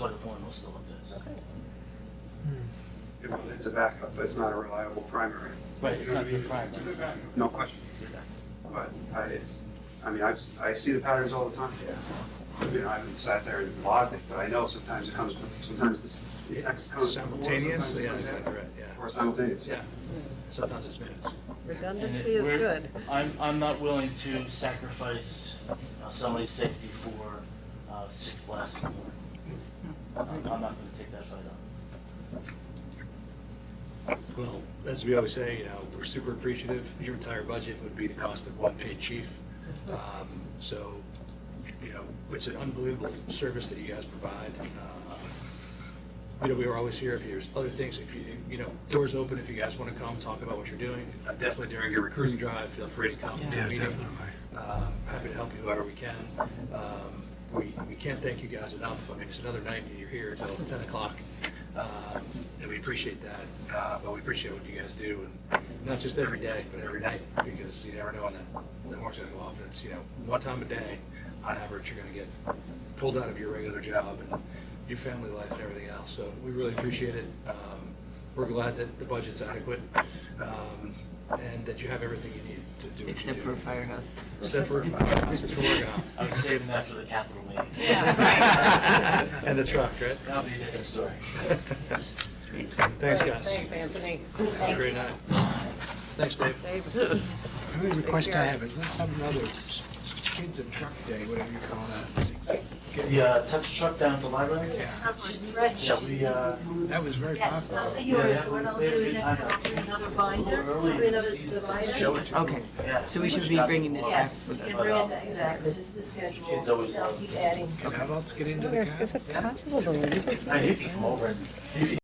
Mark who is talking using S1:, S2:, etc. S1: Solar one will still exist.
S2: It- It's a backup, but it's not a reliable primary.
S1: Right, it's
S2: You know
S1: not
S2: what I mean?
S1: the primary.
S2: It's a backup. No question. But I, it's, I mean, I, I see the patterns all the time. You know, I haven't sat there and logged it, but I know sometimes it comes, sometimes this- the text comes. before,
S3: Simultaneous,
S2: sometimes it
S3: yeah,
S2: comes
S3: exactly
S2: after,
S3: right, yeah.
S2: Or simultaneous.
S3: Yeah, sometimes it's minutes.
S1: And it-
S4: Redundancy is
S1: we're-
S4: good.
S1: I'm, I'm not willing to sacrifice uh, somebody's safety for uh, six blasts
S4: Hmm.
S1: in the morning. I'm I'm not gonna take that fight on.
S3: Well, as we always say, you know, we're super appreciative. Your entire budget would be the cost of one paid chief. Um, So, you know, it's an unbelievable service that you guys provide. Uh, You know, we are always here if there's other things, if you, you know, doors open if you guys want to come, talk about what you're doing. Uh, Definitely during your recruiting drive, feel free to come.
S5: Yeah,
S3: Meeting.
S5: definitely.
S3: Uh, Happy to help you however we can. Um, We, we can't thank you guys enough. I mean, it's another night and you're here until 10 o'clock. Um, And we appreciate that, Uh, but we appreciate what you guys do, and not just every day, but every night, because you never know when that- that horn's going to go off. And it's, you know, one time a day, on average, you're going to get pulled out of your regular job and your family life and everything else. So we really appreciate it. Um, We're glad that the budget's adequate um, and that you have everything you need to do what you
S6: Except
S3: do.
S6: for a firehouse.
S3: Except for that's what we're working on.
S1: I was saving that for the capital meeting.
S4: Yeah.
S3: And the truck, right?
S1: That'll be a different story.
S3: Thanks,
S4: Great,
S3: guys.
S4: Thanks, Anthony.
S3: Have a great night. Thanks, Dave.
S4: Dave.
S5: The only request I
S4: care.
S5: have is let's have another kids and truck day, whatever you call that.
S1: The uh, touch truck down at the library?
S5: Yeah,
S7: She's ready.
S1: Yeah, we, uh.
S5: that was very
S7: Yes, those
S5: popular.
S7: are
S1: yeah,
S7: yours, so what I'll
S1: we-
S7: do
S1: we-
S7: is next time I'll bring another binder.
S1: Early in the
S4: another
S1: season,
S4: divider?
S1: show it to them.
S6: Okay.
S1: Yeah.
S6: So we should be bringing this back
S7: Yes,
S6: with
S7: and
S1: us.
S7: Miranda, exactly, just the schedule.
S1: Kids always
S7: They'll
S1: love-
S7: keep adding.
S5: Can adults get into the cab?
S4: Is it possible to leave it
S1: I knew you come over and.